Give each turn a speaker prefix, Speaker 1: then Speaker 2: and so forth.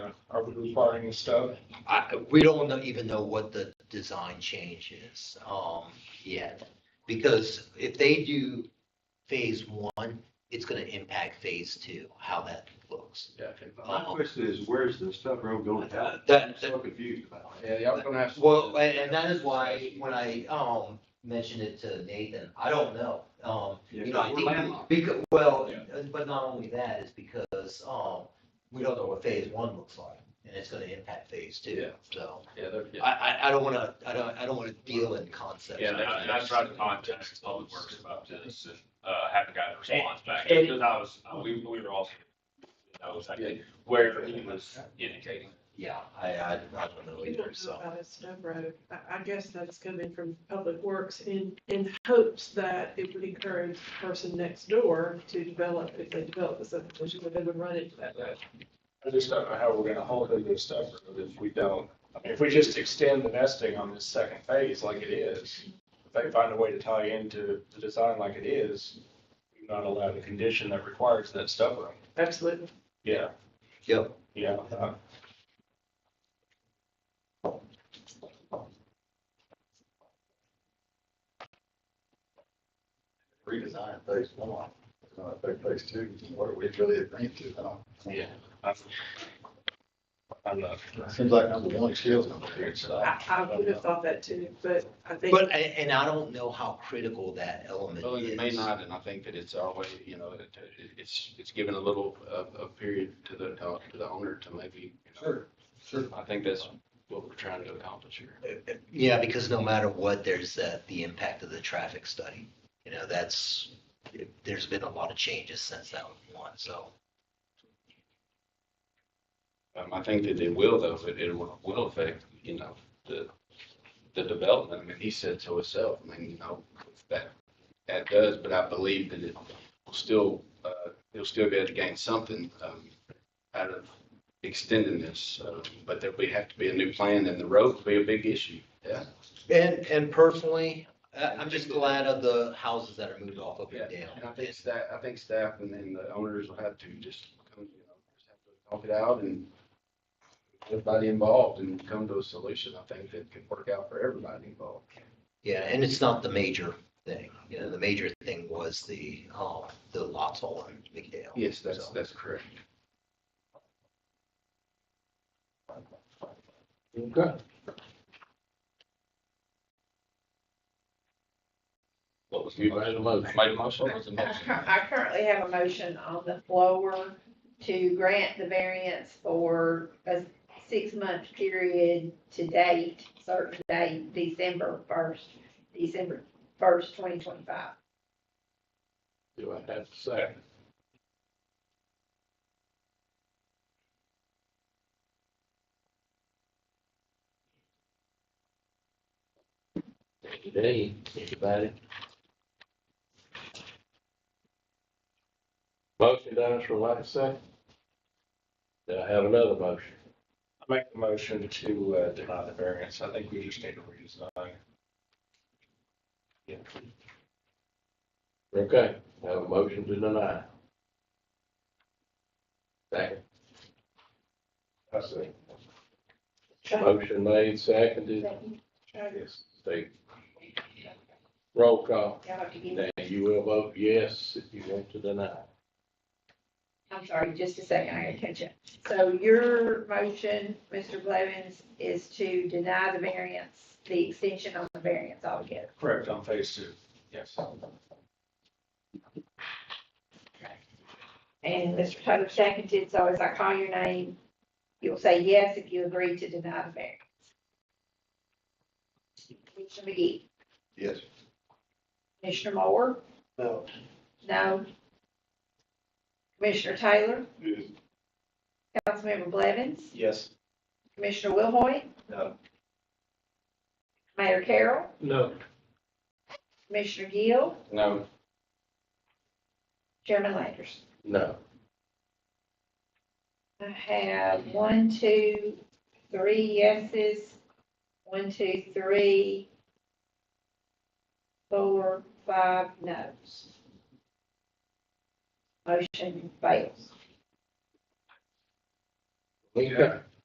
Speaker 1: Are we requiring the stub?
Speaker 2: I, we don't know, even know what the design change is, um, yet. Because if they do phase one, it's gonna impact phase two, how that looks. Um,
Speaker 3: My question is, where's the stub road going down? I'm
Speaker 2: That, that-
Speaker 3: so confused about it.
Speaker 1: Yeah, y'all gonna have.
Speaker 2: well, and, and that is why, when I, um, mentioned it to Nathan, I don't know, um, you know, I
Speaker 3: We're
Speaker 2: think,
Speaker 3: landlocked.
Speaker 2: because, well, uh,
Speaker 1: Yeah.
Speaker 2: but not only that, is because, um, we don't know what phase one looks like, and it's gonna impact phase two,
Speaker 4: Yeah.
Speaker 2: so.
Speaker 4: Yeah, they're, yeah.
Speaker 2: I, I, I don't wanna, I don't, I don't wanna deal in concepts.
Speaker 4: Yeah,
Speaker 2: like
Speaker 4: and I, and I
Speaker 2: that.
Speaker 4: tried to contact Public Works about this, and, uh, haven't gotten a response back,
Speaker 2: And-
Speaker 4: because I was, uh, we, we were all, I was like, where he was indicating.
Speaker 2: Yeah, I, I, I don't know
Speaker 5: You
Speaker 2: either,
Speaker 5: don't know
Speaker 2: so,
Speaker 5: about a stub road. I, I guess that's coming from Public Works in, in hopes that it would encourage the person next door to develop, if they develop the subdivision, then they would run into that road.
Speaker 1: I just don't know how we're gonna hold it to the stub road if we don't. I mean, if we just extend the nesting on this second phase like it is, if they find a way to tie into the design like it is, you're not allowed a condition that requires that stub room.
Speaker 5: Absolutely.
Speaker 1: Yeah,
Speaker 2: yep,
Speaker 1: yeah. uh,
Speaker 6: redesign phase one, uh, phase two, what are we really agreeing to? I don't-
Speaker 1: Yeah. I'm- I'm not.
Speaker 6: It Seems like number one skill's number three, so I-
Speaker 5: I, I would have thought that too, but I think.
Speaker 2: but, and, and I don't know how critical that element
Speaker 7: Well, it may
Speaker 2: is.
Speaker 7: not, and I think that it's always, you know, it- it- it's, it's given a little, uh, a, a period to the, to the owner to maybe. Sure, sure. I think that's what we're trying to accomplish here.
Speaker 2: Yeah, because no matter what, there's that, the impact of the traffic study, you know, that's, there's been a lot of changes since that one, so.
Speaker 7: Um, I think that it will though, it, it will will affect, you know, the, the development. I mean, he said so himself, I mean, you know, that, that does, but I believe that it will still, uh, he'll still be able to gain something, um, out of extending this, uh, but there would have to be a new plan and the road will be a big issue, yeah.
Speaker 2: And, and personally, I- I'm just glad of the houses that are moved off of and
Speaker 7: And I
Speaker 2: down.
Speaker 7: think staff, I think staff and, and the owners will have to just, come, you know, just have to talk it out and everybody involved and come to a solution, I think that can work out for everybody involved.
Speaker 2: Yeah, and it's not the major thing, you know, the major thing was the, um, the lots all in McDale.
Speaker 7: Yes, that's, that's correct. What was? You made a motion. Made a motion? What's the motion?
Speaker 8: I currently have a motion on the floor to grant the variance for a six-month period to date, certain date, December first, December first, twenty twenty-five.
Speaker 7: Do I have a second? Today, anybody?
Speaker 9: Motion dies for lack of second. Do I have another motion?
Speaker 1: I make the motion to uh, deny the variance. I think we just need to redesign.
Speaker 9: Okay, I have a motion to deny. Second. I see. Motion made, seconded, yes, Steve. Roll call.
Speaker 8: Y'all have to give me-
Speaker 9: Now, you will vote yes if you want to deny.
Speaker 8: I'm sorry, just a second, I gotta catch up. So your motion, Mr. Blevins, is to deny the variance, the extension on the variance altogether.
Speaker 1: Correct, on phase two. Yes.
Speaker 8: And Mr. Taylor seconded, so as I call your name, you'll say yes if you agree to deny the variance. Commissioner McGee,
Speaker 6: yes.
Speaker 8: Commissioner Moore?
Speaker 6: No.
Speaker 8: No. Commissioner Taylor?
Speaker 6: Yes.
Speaker 8: Councilmember Blevins?
Speaker 1: Yes.
Speaker 8: Commissioner Wilhoit?
Speaker 6: No.
Speaker 8: Mayor Carroll?
Speaker 9: No.
Speaker 8: Commissioner Gill?
Speaker 7: No,
Speaker 8: Chairman Landers?
Speaker 9: No.
Speaker 8: I have one, two, three yeses, one, two, three, four, five noes. Motion fails.
Speaker 9: Okay.